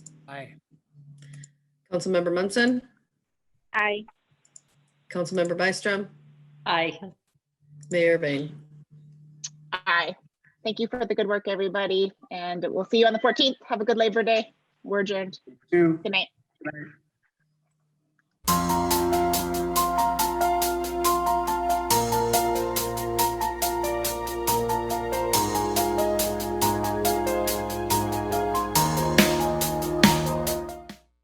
Aye. Councilmember Munson, Aye. Councilmember Byström, Aye. Mayor Bain. Aye. Thank you for the good work, everybody, and we'll see you on the fourteenth. Have a good Labor Day. We're adjourned. Two. Good night.